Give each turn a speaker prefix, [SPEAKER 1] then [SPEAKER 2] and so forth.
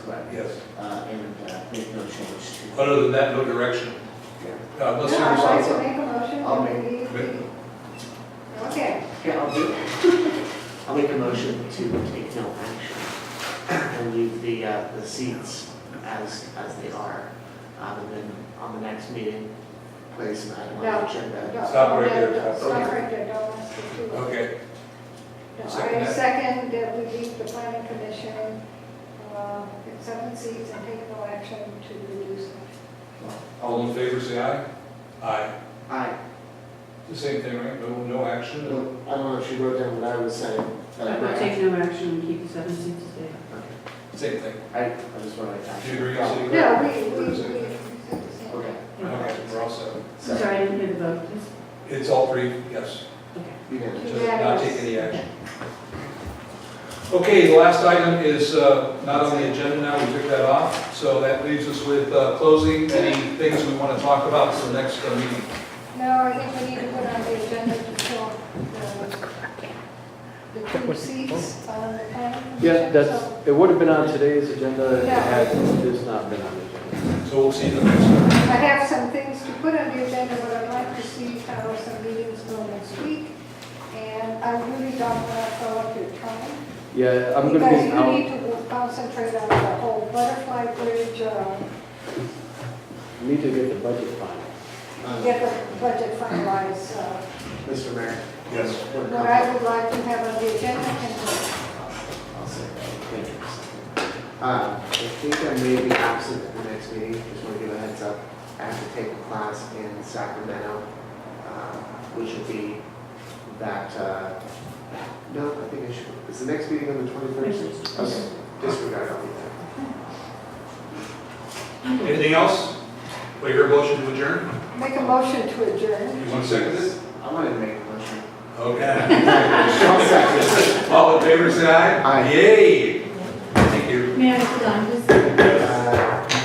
[SPEAKER 1] correct?
[SPEAKER 2] Yes.
[SPEAKER 1] Uh, and, uh, make no change to.
[SPEAKER 2] Other than that, no direction.
[SPEAKER 1] Yeah.
[SPEAKER 2] Uh, Unless
[SPEAKER 3] Yeah, I'd like
[SPEAKER 2] there's,
[SPEAKER 3] to make a motion.
[SPEAKER 1] I'll
[SPEAKER 3] that we-
[SPEAKER 2] make-
[SPEAKER 3] Okay,
[SPEAKER 1] Yeah, I'll do. I'll make a motion to take no action and leave the, uh, the seats as, as they are. Um, and then on the next meeting, place an item on
[SPEAKER 3] No.
[SPEAKER 1] the agenda.
[SPEAKER 3] don't-
[SPEAKER 2] Stop right
[SPEAKER 3] no,
[SPEAKER 2] there, stop.
[SPEAKER 3] no, Stop right there, don't ask me to. No,
[SPEAKER 2] okay, Second
[SPEAKER 3] I
[SPEAKER 2] that.
[SPEAKER 3] second that we leave the planning commission, uh, seven seats and take no action to reduce it.
[SPEAKER 2] all in favor, say aye. Aye.
[SPEAKER 1] I,
[SPEAKER 2] The same thing, right? No, no
[SPEAKER 1] I
[SPEAKER 2] action?
[SPEAKER 1] don't know if she wrote down what I was saying. but
[SPEAKER 4] I would take no action and keep the seven seats there.
[SPEAKER 1] Okay.
[SPEAKER 2] Same thing.
[SPEAKER 1] I, I just wanted to. Oh,
[SPEAKER 2] Do you agree, City Clerk?
[SPEAKER 3] No, we, we,
[SPEAKER 2] We're
[SPEAKER 3] we
[SPEAKER 2] the same.
[SPEAKER 3] said the same.
[SPEAKER 1] Okay.
[SPEAKER 2] Okay, we're all set.
[SPEAKER 4] I'm
[SPEAKER 1] So,
[SPEAKER 4] sorry, I didn't hear the vote, please.
[SPEAKER 2] It's all three, yes.
[SPEAKER 4] Okay.
[SPEAKER 1] you know,
[SPEAKER 2] Just not take any action. Okay, the last item is uh, not on the agenda now, we took that off. So that leaves us with uh, closing, any things we want to talk about for the next uh, meeting.
[SPEAKER 3] No, I think we need to put on the agenda to fill the- the two seats on the planning commission.
[SPEAKER 5] Yeah, that's,
[SPEAKER 3] So,
[SPEAKER 5] it would have been on today's agenda
[SPEAKER 3] Yeah.
[SPEAKER 5] had this not been on the agenda.
[SPEAKER 2] So we'll see the next one.
[SPEAKER 3] I have some things to put on the agenda, but I'd like to see how some meetings go next week. And I really don't want to fill up your time.
[SPEAKER 5] Yeah, I'm gonna be
[SPEAKER 3] Because you
[SPEAKER 5] out,
[SPEAKER 3] need to concentrate on the whole butterfly bridge, uh,
[SPEAKER 5] need to get the budget final.
[SPEAKER 1] uh,
[SPEAKER 3] get the budget finalized. uh,
[SPEAKER 1] Mr. Mayor.
[SPEAKER 2] Yes.
[SPEAKER 1] we're
[SPEAKER 3] What I would like to have on the agenda and
[SPEAKER 1] I'll say that, thank you. Um, I think I may be absent at the next meeting, just want to give a heads up. I have to take a class in Sacramento, um, which will be that, uh, no, I think I should, is the next meeting on the twenty-first? Okay, disregard, I'll be there.
[SPEAKER 2] Anything else? Wait, your motion to adjourn?
[SPEAKER 3] make a motion to adjourn.
[SPEAKER 2] You want to second this?
[SPEAKER 1] I wanted to make a motion.
[SPEAKER 2] Okay.
[SPEAKER 1] I'll second.
[SPEAKER 2] All in favor, say aye.
[SPEAKER 1] Aye.
[SPEAKER 2] Yay. Thank you.
[SPEAKER 4] May I, Don, just
[SPEAKER 1] Uh,